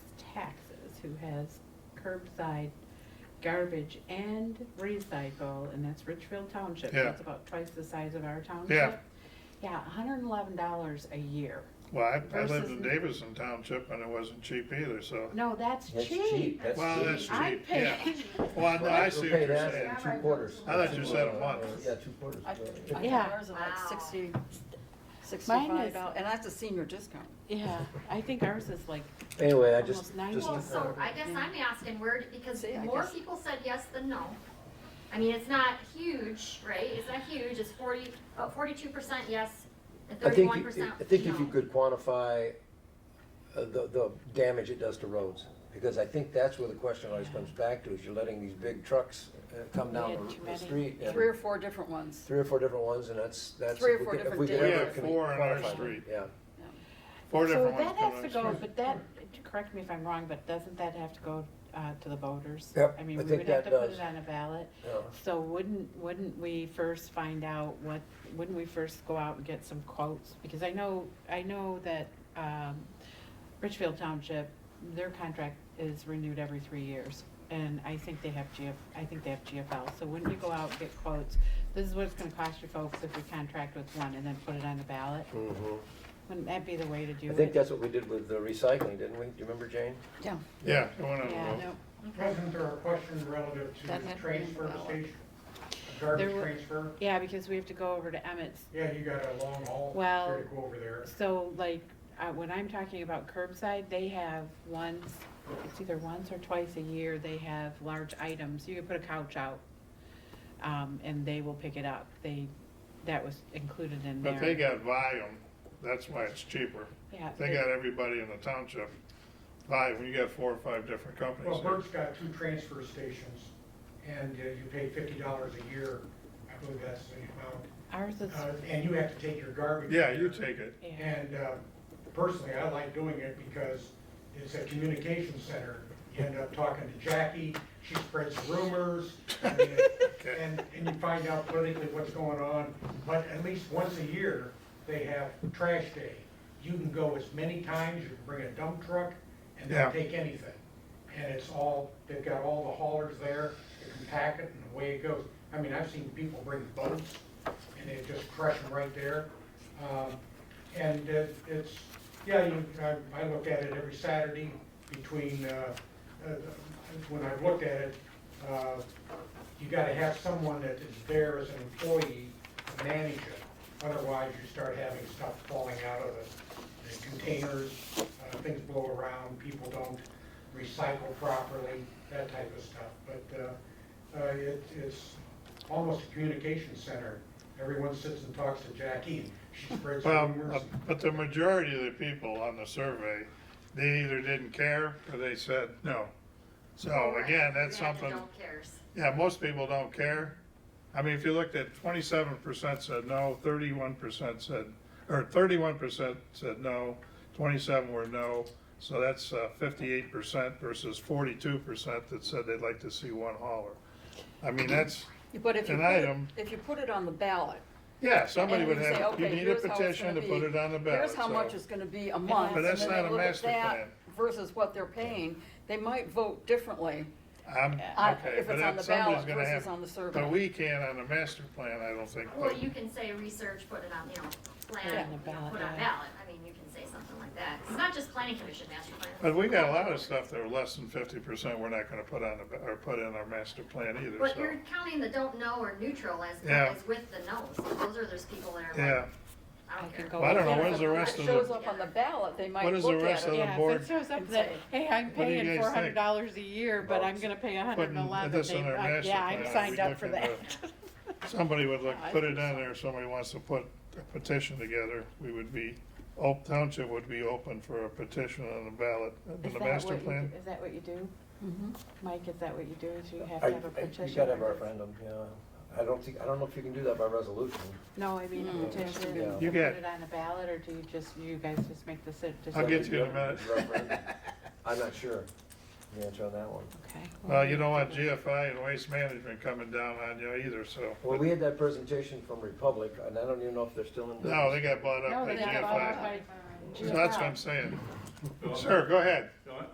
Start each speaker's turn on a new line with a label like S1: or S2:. S1: who has curbside garbage and recycle, and that's Richfield Township.
S2: Yeah.
S1: That's about twice the size of our township.
S2: Yeah.
S1: Yeah, hundred and eleven dollars a year.
S2: Well, I, I lived
S1: Versus-
S2: in Davidson Township and it wasn't cheap either, so.
S1: No, that's
S3: That's
S1: cheap.
S3: That's
S2: Well,
S3: cheap.
S2: that's cheap,
S1: I
S2: yeah.
S1: pay,
S2: Well, no, I see what
S3: Okay,
S2: you're
S3: that's
S2: saying.
S3: Two quarters.
S2: I thought you said a month.
S3: Yeah, two quarters.
S4: I- I
S1: Yeah.
S4: think ours are like sixty,
S1: Mine is-
S4: sixty-five dollars, and that's a senior discount.
S1: yeah, I think ours is like
S3: Anyway, I just,
S1: almost ninety.
S3: just,
S5: Well, so I guess I'm asking where, because
S4: See, I
S5: more
S4: guess-
S5: people said yes than no. I mean, it's not huge, right? It's not huge, it's forty, about forty-two percent yes and
S3: I think,
S5: thirty-one
S3: you-
S5: percent
S3: I think if you
S5: no.
S3: could quantify uh, the, the damage it does to roads, because I think that's where the question always comes back to, is you're letting these big trucks uh, come
S1: We
S3: down
S1: had
S3: the-
S1: too
S3: the
S1: many.
S3: street. and-
S4: Three or four different ones.
S3: Three or four different ones, and that's, that's.
S4: Three or
S3: if we
S4: four
S3: could- if
S4: different
S3: we could
S4: days.
S3: ever
S4: We had
S3: com-
S2: four on our
S3: quantify them,
S2: street.
S3: Yeah,
S2: Four different ones.
S1: So that has to
S2: come
S1: go,
S2: out.
S1: but that, correct me if I'm wrong, but doesn't that have to go uh, to the voters?
S3: Yep,
S1: I mean,
S3: I
S1: we
S3: think
S1: would have
S3: that
S1: to put
S3: does.
S1: it on a ballot.
S3: yeah.
S1: So wouldn't, wouldn't we first find out what, wouldn't we first go out and get some quotes? Because I know, I know that um, Richfield Township, their contract is renewed every three years. And I think they have GF, I think they have GFL. So wouldn't you go out and get quotes? This is what it's gonna cost you folks if we contract with one and then put it on the ballot?
S3: Mhm.
S1: Wouldn't that be the way to do
S3: I
S1: it?
S3: think that's what we did with the recycling, didn't we? Do you remember, Jane?
S4: Yeah.
S2: Yeah, it went on a
S1: Yeah.
S2: vote.
S4: Yep.
S6: Wasn't there a question relative to
S4: That had
S6: the
S4: been
S6: transfer
S4: valid.
S6: station? A
S1: There
S6: Garbage
S1: were-
S6: transfer?
S1: Yeah, because we have to go over to Emmett's.
S6: Yeah, you got a long haul
S1: Well,
S6: to go over there.
S1: So like, uh, when I'm talking about curbside, they have once, it's either once or twice a year, they have large items. You can put a couch out, um, and they will pick it up. They, that was included in there.
S2: But they got volume, that's why it's cheaper.
S1: Yeah.
S2: They got everybody in the township. Volume, you got four or five different companies.
S6: Well, Bert's got two transfer stations, and uh, you pay fifty dollars a year, I believe that's the
S1: Ours is,
S6: amount. Uh, And you have to take your garbage.
S2: Yeah, you take it.
S1: yeah,
S6: And uh, personally, I like doing it because it's a communication center. You end up talking to Jackie, she spreads rumors, and, and and you find out politically what's going on. But at least once a year, they have trash day. You can go as many times, you can bring a dump truck, and
S2: Yeah.
S6: they'll take anything. And it's all, they've got all the haulers there, they can pack it, and away it goes. I mean, I've seen people bring boats, and they just crush them right there. Um, And it- it's, yeah, you, I, I look at it every Saturday between, uh, uh, when I've looked at it, uh, you gotta have someone that is there as an employee to manage it. Otherwise, you start having stuff falling out of the- the containers, uh, things blow around, people don't recycle properly, that type of stuff. But, uh, uh, it, it's almost a communication center. Everyone sits and talks to Jackie, and she spreads
S2: Well,
S6: rumors.
S2: uh, but the majority of the people on the survey, they either didn't care or they said no. So
S5: Right.
S2: Oh, again, that's
S5: You have the
S2: something,
S5: don't cares.
S2: yeah, most people don't care. I mean, if you looked at twenty-seven percent said no, thirty-one percent said, or thirty-one percent said no, twenty-seven were no. So that's uh, fifty-eight percent versus forty-two percent that said they'd like to see one hauler. I mean, that's,
S4: But if you,
S2: An
S4: put it-
S2: item.
S4: if you put it on the ballot.
S2: yeah, um, somebody
S4: and
S2: would
S4: you say,
S2: have, you
S4: okay,
S2: need a
S4: here's how it's
S2: petition
S4: gonna
S2: to put
S4: be.
S2: it on the ballot.
S4: Here's how
S2: so-
S4: much it's gonna be a month.
S2: But
S4: and
S2: that's
S4: then they
S2: not a
S4: look at
S2: master
S4: that
S2: plan.
S4: Versus what they're paying, they might vote differently.
S2: I'm,
S4: Uh,
S2: okay,
S4: if
S2: but
S4: it's on
S2: that,
S4: the
S2: somebody's
S4: ballot
S2: gonna
S4: versus
S2: have,
S4: on the survey.
S2: but we can't on the master plan, I don't think.
S5: Well,
S2: but-
S5: you can say research, put it on, you know,
S1: Put it
S5: plan,
S1: on
S5: you
S1: the
S5: know,
S1: ballot,
S5: put on
S1: yeah.
S5: ballot. I mean, you can say something like that. It's not just planning commission, master plan.
S2: But we got a lot of stuff that are less than fifty percent, we're not gonna put on, the or put in our master plan either,
S5: But
S2: so.
S5: you're counting the don't know or neutral as,
S2: Yeah.
S5: as with the no. So those are those people that are
S2: Yeah,
S5: like, I
S1: I
S5: don't
S1: can
S5: care.
S1: go.
S2: Well, I don't know,
S4: Yeah,
S2: when's
S4: if
S2: the
S4: it
S2: rest of
S4: Shows
S2: the-
S4: up on the ballot, they might
S2: What is the
S4: look
S2: rest
S4: at
S2: of
S4: it.
S2: the-
S1: yeah, if
S2: board-
S1: it shows up
S4: and
S1: that,
S4: say,
S1: hey, I'm
S2: "What do you
S1: paying
S2: guys
S1: four
S2: think
S1: hundred dollars a year, but
S3: about
S1: I'm gonna pay a hundred and
S2: putting
S1: eleven,
S2: this
S1: they,
S2: on our
S1: I-
S2: master
S1: yeah,
S2: plan?
S1: I'm
S2: Are
S1: signed
S2: we
S1: up for
S2: looking
S1: that.
S2: somebody would look,
S1: I
S2: put it
S1: think
S2: on
S1: so.
S2: there, somebody wants to put a petition together, we would be, Old Township would be open for a petition on the ballot,
S1: Is
S2: on the
S1: that
S2: master
S1: what you
S2: plan.
S1: do- Is that what you do?
S4: Mhm.
S1: Mike, is that what you do, is you have
S3: I-
S1: to have a
S3: I-
S1: petition?
S3: You gotta have a referendum, yeah. I don't think, I don't know if you can do that by resolution.
S1: No, I mean,
S4: Mm,
S1: a petition,
S3: yeah.
S1: and
S2: You
S1: put
S2: get-
S1: it on the ballot, or do you just, you guys just make the si- decision?
S2: I'll get you in a minute.
S3: Referendum. I'm not sure, the answer on that one.
S1: Okay.
S2: Well, Uh, you don't want GFI and Waste Management coming down on you either, so.
S3: Well, we had that presentation from Republic, and I don't even know if they're still in business.
S2: No, they got bought up
S1: No,
S2: by
S1: they got bought out
S2: GFI.
S1: by
S2: So that's what I'm saying. Sir, go ahead.
S7: No, I-